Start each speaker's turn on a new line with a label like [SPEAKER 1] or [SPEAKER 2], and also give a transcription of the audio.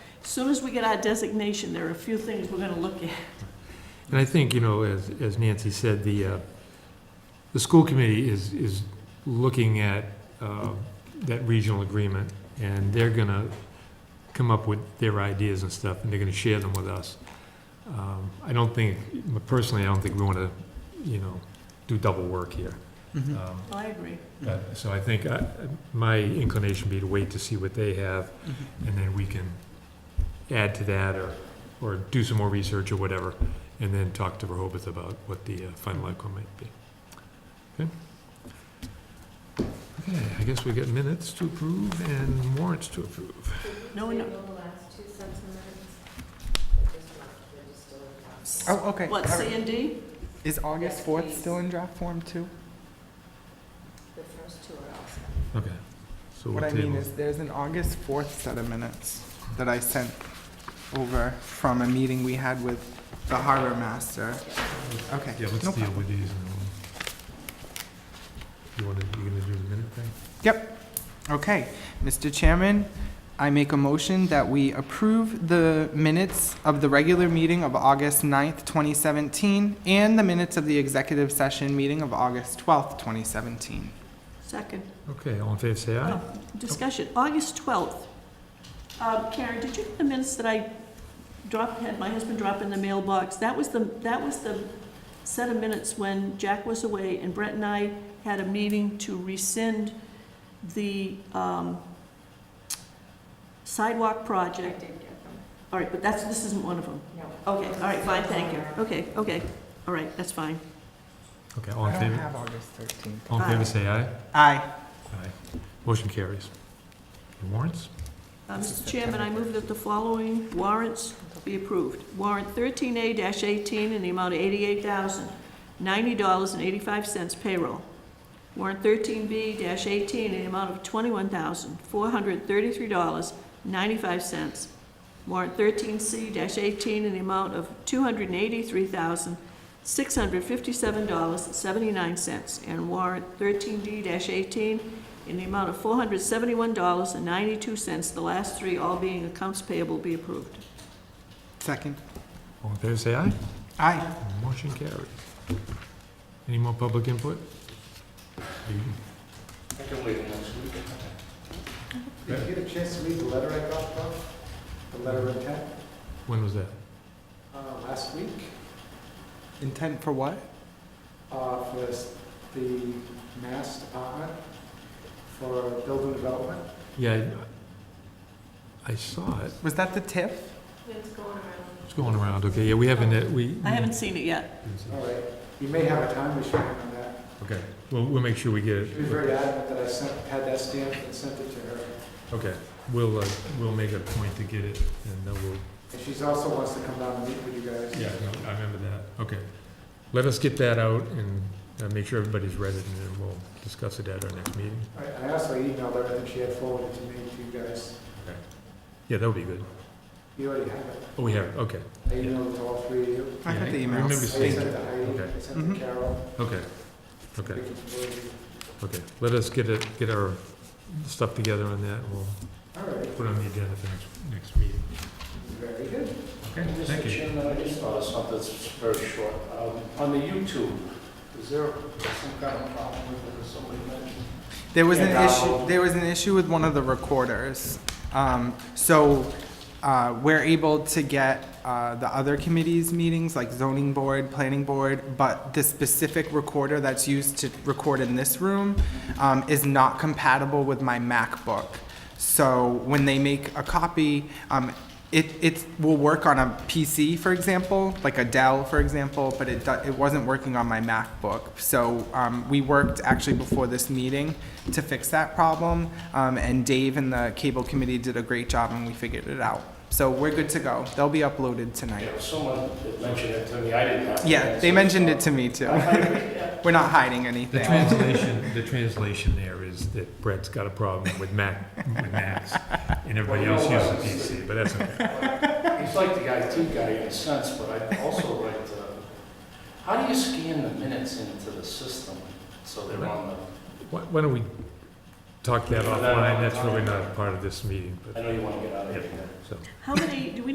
[SPEAKER 1] Soon as we get our designation, there are a few things we're gonna look at.
[SPEAKER 2] And I think, you know, as, as Nancy said, the, uh, the school committee is, is looking at, uh, that regional agreement, and they're gonna come up with their ideas and stuff, and they're gonna share them with us. Um, I don't think, personally, I don't think we wanna, you know, do double work here.
[SPEAKER 3] Mhm.
[SPEAKER 2] Um,
[SPEAKER 1] Oh, I agree.
[SPEAKER 2] but- So I think, I, my inclination would be to wait to see what they have,
[SPEAKER 3] Mhm.
[SPEAKER 2] and then we can add to that or, or do some more research or whatever, and then talk to Rehoboth about what the uh, final outcome might be. Okay? Okay, I guess we got minutes to approve and warrants to approve.
[SPEAKER 1] No, no,
[SPEAKER 3] Oh, okay.
[SPEAKER 1] what,
[SPEAKER 3] All right.
[SPEAKER 1] C and D?
[SPEAKER 3] Is August 4th still in draft form too?
[SPEAKER 2] Okay. So we'll
[SPEAKER 3] What I mean
[SPEAKER 2] table-
[SPEAKER 3] is there's an August 4th set of minutes that I sent over from a meeting we had with the harbor master. Okay.
[SPEAKER 2] Yeah,
[SPEAKER 3] no
[SPEAKER 2] let's deal
[SPEAKER 3] problem.
[SPEAKER 2] with these and then we'll- you wanna, you gonna do the minute thing?
[SPEAKER 3] Okay, Mr. Chairman, I make a motion that we approve the minutes of the regular meeting of August 9th, 2017, and the minutes of the executive session meeting of August 12th, 2017.
[SPEAKER 1] Second.
[SPEAKER 2] Okay, all in favor, say aye.
[SPEAKER 1] Oh, Discussion, August 12th. Um, Karen, did you get the minutes that I dropped, had my husband drop in the mailbox? That was the, that was the set of minutes when Jack was away and Brett and I had a meeting to rescind the um, sidewalk project. All right, but that's, this isn't one of them. Okay, all right, fine, thank you. Okay, okay, all right, that's fine.
[SPEAKER 2] Okay, all
[SPEAKER 3] I
[SPEAKER 2] in
[SPEAKER 3] don't
[SPEAKER 2] favor, Oh.
[SPEAKER 3] have August 13th.
[SPEAKER 2] all in favor, say aye.
[SPEAKER 3] Aye.
[SPEAKER 2] Aye. Motion carries. And Warrants?
[SPEAKER 1] Uh, Mr. Chairman, I move that the following warrants be approved. Warrant 13A-18 in the amount of $88,090.85 payroll. Warrant 13B-18 in the amount of $21,433.95. Warrant 13C-18 in the amount of $283,657.79. And warrant 13D-18 in the amount of four hundred seventy-one dollars and ninety-two cents, the last three all being accounts payable be approved.
[SPEAKER 3] Second.
[SPEAKER 2] All in favor, say aye.
[SPEAKER 3] Aye.
[SPEAKER 2] Motion carries. Any more public input? You-
[SPEAKER 4] I can wait next week.
[SPEAKER 5] Did you get a chance to read the letter I got from, the letter of intent,
[SPEAKER 2] When was that?
[SPEAKER 5] uh, last week,
[SPEAKER 3] Intent for what?
[SPEAKER 5] uh, for this- the Mass Department for Building Development?
[SPEAKER 2] Yeah, I I saw it.
[SPEAKER 3] Was that the TIF?
[SPEAKER 2] It's going around, okay, yeah, we haven't, uh, we.
[SPEAKER 1] I haven't seen it yet.
[SPEAKER 5] All right, you may have a time machine on that.
[SPEAKER 2] Okay, well, we'll make sure we get
[SPEAKER 5] She was
[SPEAKER 2] it.
[SPEAKER 5] very adamant that I sent, had that stamped and sent it to her.
[SPEAKER 2] Okay, we'll, uh, we'll make a point to get it, and then we'll,
[SPEAKER 5] And she's also wants to come down and meet with you guys.
[SPEAKER 2] yeah, no, I remember that, okay. Let us get that out and uh, make sure everybody's read it, and then we'll discuss it at our next meeting.
[SPEAKER 5] All right, I also emailed everything she had forwarded to me to you guys.
[SPEAKER 2] Yeah, that would be good.
[SPEAKER 5] You already have it.
[SPEAKER 2] Oh, we have, it. okay,
[SPEAKER 5] I emailed it to all three of you.
[SPEAKER 3] I got
[SPEAKER 2] Yeah,
[SPEAKER 3] the
[SPEAKER 2] I
[SPEAKER 3] emails.
[SPEAKER 2] remember
[SPEAKER 5] I
[SPEAKER 2] seeing
[SPEAKER 5] sent
[SPEAKER 3] Thank
[SPEAKER 5] it
[SPEAKER 3] you.
[SPEAKER 5] to Heidi, I sent it
[SPEAKER 3] Mhm.
[SPEAKER 5] to Carol.
[SPEAKER 2] okay, okay.
[SPEAKER 5] We can forward you.
[SPEAKER 2] Okay, let us get it, get our stuff together on that, and we'll
[SPEAKER 5] All right,
[SPEAKER 2] put it on the agenda for next, next meeting.
[SPEAKER 5] very good.
[SPEAKER 2] Okay, thank
[SPEAKER 4] Mr.
[SPEAKER 2] you.
[SPEAKER 4] Chairman, I just noticed something that's very short. Um, On the YouTube, is there some kind of problem with it, or somebody mentioned?
[SPEAKER 3] There was an
[SPEAKER 4] Yeah,
[SPEAKER 3] issue,
[SPEAKER 4] Donald.
[SPEAKER 3] there was an issue with one of the recorders. Um, so, uh, we're able to get, uh, the other committees' meetings, like zoning board, planning board, but the specific recorder that's used to record in this room, um, is not compatible with my MacBook. So when they make a copy, um, it, it will work on a PC, for example, like a Dell, for example, but it, do- it wasn't working on my MacBook. So um, we worked actually before this meeting to fix that problem, um, and Dave and the cable committee did a great job, and we figured it out. So we're good to go. They'll be uploaded tonight.
[SPEAKER 4] Yeah, someone had mentioned it to me, I didn't have.
[SPEAKER 3] Yeah, they mentioned it to me too. We're not hiding anything.
[SPEAKER 2] The translation, the translation there is that Brett's got a problem with Mac, with Macs, and everybody else uses PC, but that's okay.
[SPEAKER 4] He's like the IT guy in a sense, but I also like, uh, how do you scan the minutes into the system so they're on the?
[SPEAKER 2] Why, why don't we,
[SPEAKER 4] talk that
[SPEAKER 2] No, no, no, no.
[SPEAKER 4] offline, that's really not part of this meeting,
[SPEAKER 2] I
[SPEAKER 4] but,
[SPEAKER 2] know you want to get out of
[SPEAKER 4] yeah,
[SPEAKER 2] here.
[SPEAKER 4] so.
[SPEAKER 1] How many, do we